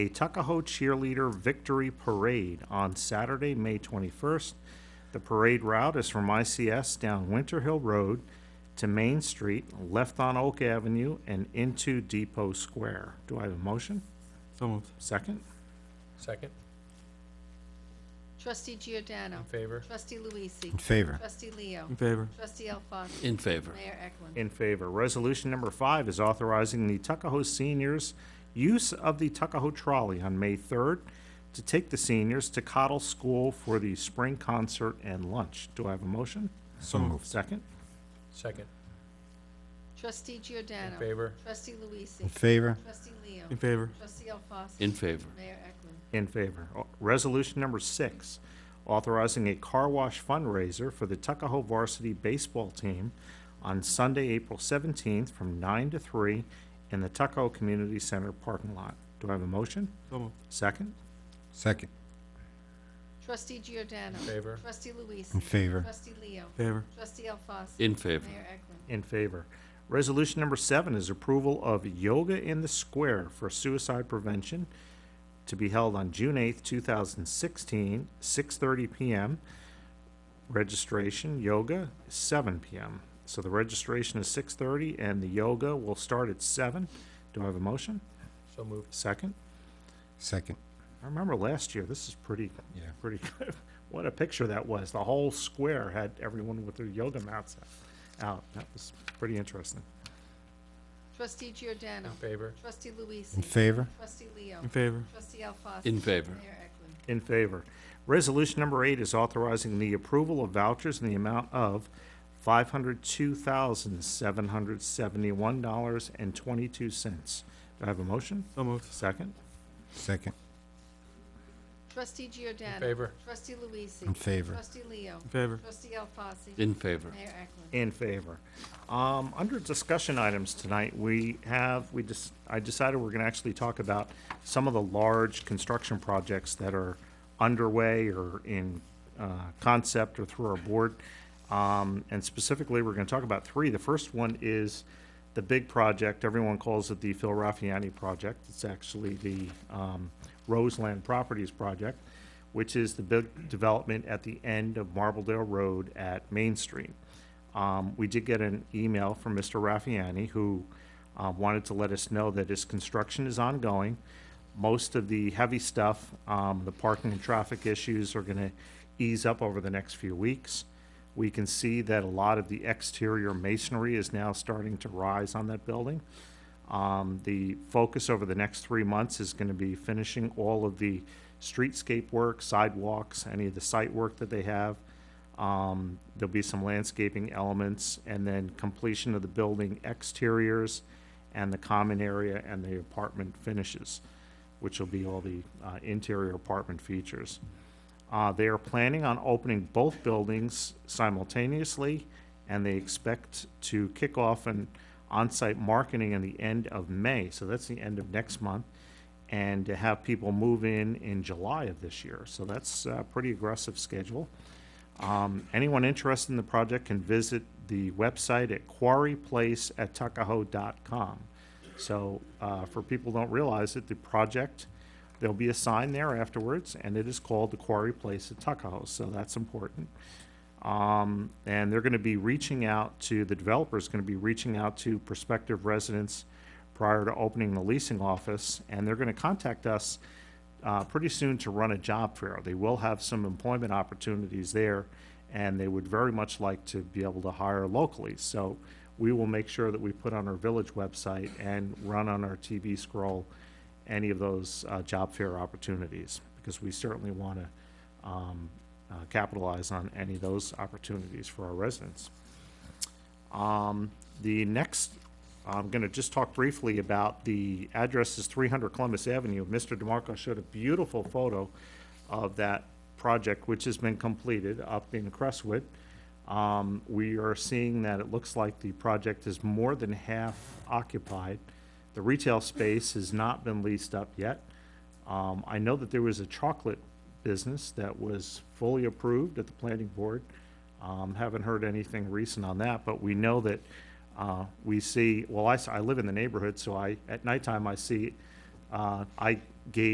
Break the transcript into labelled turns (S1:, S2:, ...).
S1: a Tuckahoe Cheerleader Victory Parade on Saturday, May 21st. The parade route is from ICS down Winter Hill Road to Main Street, left on Oak Avenue, and into Depot Square. Do I have a motion?
S2: So moved.
S1: Second?
S3: Second,
S4: Trustee Giordano.
S3: in favor?
S4: Trustee Luisee.
S5: In favor.
S4: Trustee Leo.
S2: In favor.
S4: Trustee Alfasi.
S6: In favor.
S4: Mayor Eklund.
S1: In favor. Resolution number five is authorizing the Tuckahoe seniors' use of the Tuckahoe trolley on May 3rd to take the seniors to Cottle School for the spring concert and lunch. Do I have a motion?
S2: So moved.
S1: Second?
S3: Second,
S4: Trustee
S3: in
S4: Giordano.
S3: favor?
S4: Trustee Luisee.
S5: In favor.
S4: Trustee Leo.
S2: In favor.
S4: Trustee Alfasi.
S6: In favor.
S4: Mayor Eklund.
S1: In favor. O- Resolution number six, authorizing a car wash fundraiser for the Tuckahoe varsity baseball team on Sunday, April 17th, from 9 to 3 in the Tuckahoe Community Center parking lot. Do I have a motion?
S2: So moved.
S1: Second?
S5: Second.
S4: Trustee Giordano.
S3: In favor?
S4: Trustee Luisee.
S5: In favor.
S4: Trustee Leo.
S2: Favor.
S4: Trustee Alfasi.
S6: In favor.
S4: Mayor Eklund.
S1: In favor. Resolution number seven is approval of Yoga in the Square for Suicide Prevention to be held on June 8th, 2016, 6:30 PM. Registration, yoga, 7 PM. So the registration is 6:30 and the yoga will start at 7. Do I have a motion?
S3: So moved.
S1: Second?
S5: Second.
S1: I remember last year, this is pretty,
S5: Yeah.
S1: pretty good. What a picture that was. The whole square had everyone with their yoga mats out. That was pretty interesting.
S4: Trustee Giordano.
S3: In favor?
S4: Trustee Luisee.
S5: In favor.
S4: Trustee Leo.
S2: In favor.
S4: Trustee Alfasi.
S6: In favor.
S4: Mayor Eklund.
S1: In favor. Resolution number eight is authorizing the approval of vouchers in the amount of $502,771.22. Do I have a motion?
S2: So moved.
S1: Second?
S5: Second.
S4: Trustee Giordano.
S3: In favor?
S4: Trustee Luisee.
S5: In favor.
S4: Trustee Leo.
S2: In favor.
S4: Trustee Alfasi.
S6: In favor.
S4: Mayor Eklund.
S1: In favor. Um, Under discussion items tonight, we have, we just, I decided we're going to actually talk about some of the large construction projects that are underway or in uh, concept or through our board. Um, And specifically, we're going to talk about three. The first one is the big project, everyone calls it the Phil Raffiani project. It's actually the um, Roseland Properties project, which is the big development at the end of Marbledale Road at Main Street. Um, We did get an email from Mr. Raffiani, who uh, wanted to let us know that his construction is ongoing. Most of the heavy stuff, um, the parking and traffic issues are going to ease up over the next few weeks. We can see that a lot of the exterior masonry is now starting to rise on that building. Um, The focus over the next three months is going to be finishing all of the streetscape work, sidewalks, any of the site work that they have. Um, There'll be some landscaping elements, and then completion of the building exteriors and the common area and the apartment finishes, which will be all the uh, interior apartment features. Uh, They are planning on opening both buildings simultaneously, and they expect to kick off an on-site marketing in the end of May, so that's the end of next month, and to have people move in in July of this year. So that's a pretty aggressive schedule. Um, Anyone interested in the project can visit the website at quarryplace@tuckahoe.com. So uh, for people who don't realize it, the project, there'll be a sign there afterwards, and it is called the Quarry Place at Tuckahoe, so that's important. Um, And they're going to be reaching out to, the developer's going to be reaching out to prospective residents prior to opening the leasing office, and they're going to contact us uh, pretty soon to run a job fair. They will have some employment opportunities there, and they would very much like to be able to hire locally. So we will make sure that we put on our village website and run on our TV scroll any of those uh, job fair opportunities, because we certainly want to um, uh, capitalize on any of those opportunities for our residents. Um, The next, I'm going to just talk briefly about the address is 300 Columbus Avenue. Mr. DeMarco showed a beautiful photo of that project, which has been completed up in Crestwood. Um, We are seeing that it looks like the project is more than half occupied. The retail space has not been leased up yet. Um, I know that there was a chocolate business that was fully approved at the planning board. Um, haven't heard anything recent on that, but we know that, uh, we see, well, I, s- I live in the neighborhood, so I, at nighttime, I see, uh, I gauge